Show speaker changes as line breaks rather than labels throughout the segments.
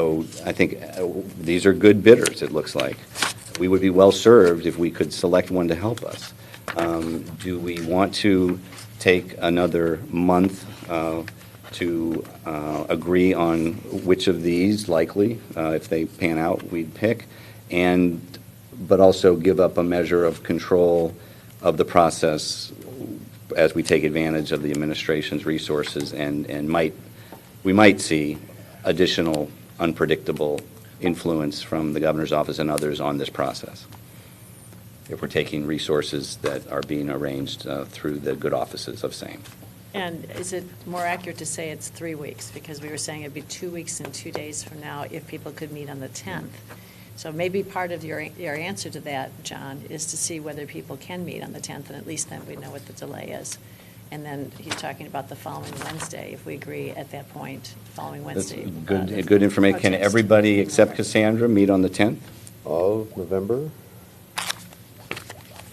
So I think uh, these are good bidders, it looks like. We would be well-served if we could select one to help us. Um, Do we want to take another month uh, to uh, agree on which of these likely, uh, if they pan out, we'd pick? And, but also give up a measure of control of the process as we take advantage of the administration's resources and, and might, we might see additional unpredictable influence from the governor's office and others on this process. If we're taking resources that are being arranged uh, through the good offices of same.
And is it more accurate to say it's three weeks? Because we were saying it'd be two weeks and two days from now if people could meet on the 10th. So maybe part of your, your answer to that, John, is to see whether people can meet on the 10th, and at least then we know what the delay is. And then he's talking about the following Wednesday, if we agree at that point, following
That's
Wednesday. uh,
Good, good information. Can
protest.
everybody except Cassandra meet on the 10th?
of November.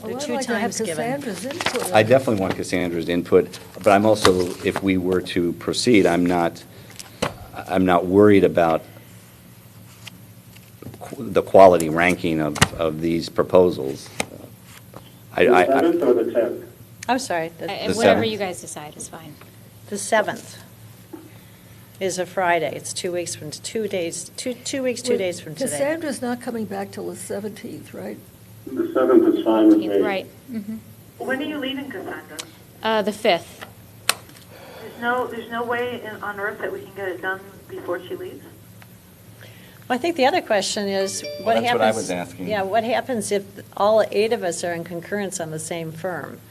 There are two times given.
I definitely want Cassandra's input, but I'm also, if we were to proceed, I'm not, I'm not worried about qu- the quality ranking of, of these proposals. I,
The
I, I-
seventh or the tenth?
I'm sorry. the-
The
And
seventh.
whatever you guys decide is fine.
The 7th is a Friday. It's two weeks from, two days, two, two weeks, two days from today.
Cassandra's not coming back till the 17th, right?
The seventh is fine with me.
Right.
When are you leaving, Cassandra?
Mm-hmm. Uh, The 5th.
There's no, there's no way in- on earth that we can get it done before she leaves?
Well, I think the other question is, what happens?
that's what I was asking.
Yeah, what happens if all eight of us are in concurrence on the same firm?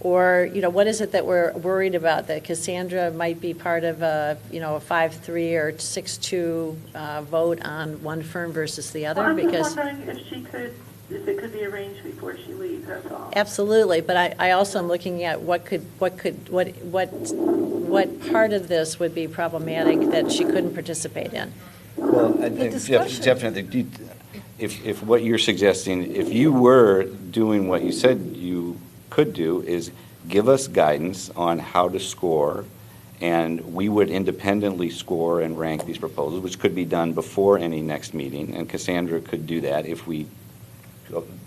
Or, you know, what is it that we're worried about, that Cassandra might be part of a, you know, a five-three or six-two vote on one firm versus the other?
I'm just
Because,
wondering if she could, if it could be arranged before she leaves, that's all.
absolutely, but I, I also am looking at what could, what could, what, what, what part of this would be problematic that she couldn't participate in?
Well, I
The
think def-
discussion.
definitely, do you- if, if what you're suggesting, if you were doing what you said you could do, is give us guidance on how to score, and we would independently score and rank these proposals, which could be done before any next meeting, and Cassandra could do that if we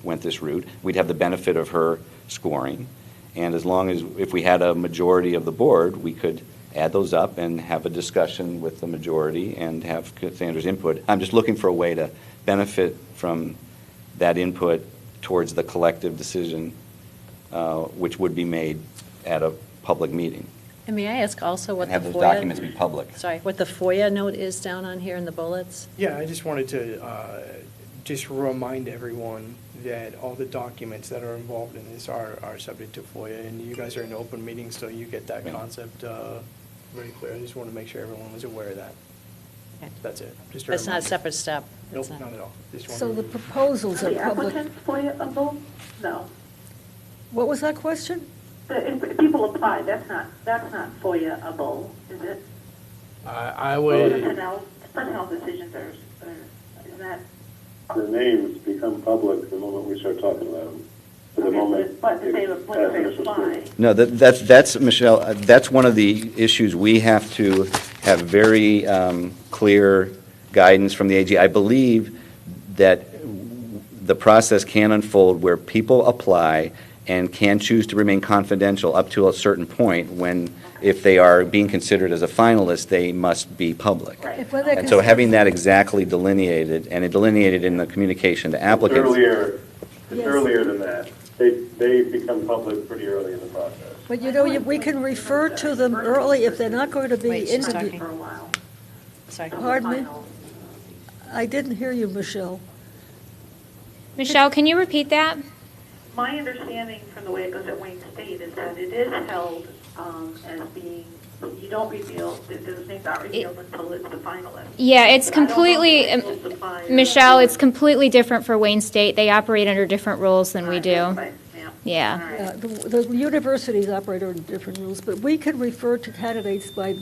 went this route. We'd have the benefit of her scoring, and as long as, if we had a majority of the board, we could add those up and have a discussion with the majority and have Cassandra's input. I'm just looking for a way to benefit from that input towards the collective decision, uh, which would be made at a public meeting.
And may I ask also what
And
the
have those
FOIA
documents be public.
Sorry, what the FOIA note is down on here in the bullets?
Yeah, I just wanted to uh, just remind everyone that all the documents that are involved in this are, are subject to FOIA, and you guys are in open meetings, so you get that
Right.
concept uh, very clear. I just want to make sure everyone was aware of that.
Okay.
That's it. Just a
That's not a
reminder.
separate step.
Nope,
It's not-
not at all. Just
So
wanted
the
to-
proposals
Are
are
the
public.
applicants FOIAable? No.
What was that question?
The- If if people apply, that's not, that's not FOIAable, is it?
I I would,
Personnel, personnel decisions are, are- is that?
The names become public the moment we start talking about them. For the
Okay,
moment.
But if they,
it
but if
has
they
initial
apply,
scrutiny.
No, that, that's, that's, Michelle, uh, that's one of the issues. We have to have very um, clear guidance from the AG. I believe that the process can unfold where people apply and can choose to remain confidential up to a certain point when, if they are being considered as a finalist, they must be public.
Right.
If whether
And so
cons-
having that exactly delineated, and it delineated in the communication to applicants.
Earlier, it's
Yes.
earlier than that. They, they become public pretty early in the process.
But you know, you- we can refer to them early if they're not going to be
Wait, she's
interviewed.
talking.
for a while.
Sorry.
Pardon me?
Final.
I didn't hear you, Michelle.
Michelle, can you repeat that?
My understanding from the way it goes at Wayne State is that it is held um, as being, you don't reveal, that those names aren't revealed until it's the finalist.
Yeah, it's
But I don't know
completely, um,
if it's supplier.
Michelle, it's completely different for Wayne State. They operate under different rules than we do.
Right, yeah.
Yeah.
All right.
Uh, The the universities operate under different rules, but we can refer to candidates by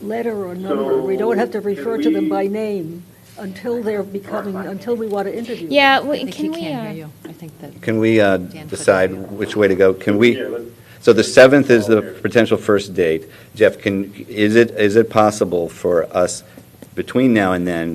letter or number. We don't have to
So,
refer
can
to them by
we-
name until they're becoming, until we want to interview them.
Yeah,
I
we-
think he
can we,
can't
uh,
hear you. I think that,
Can we uh,
Dan, put
decide
it on.
which way to go? Can we,
Yeah, let's-
so the 7th is the potential first date. Jeff, can, is it, is it possible for us, between now and then,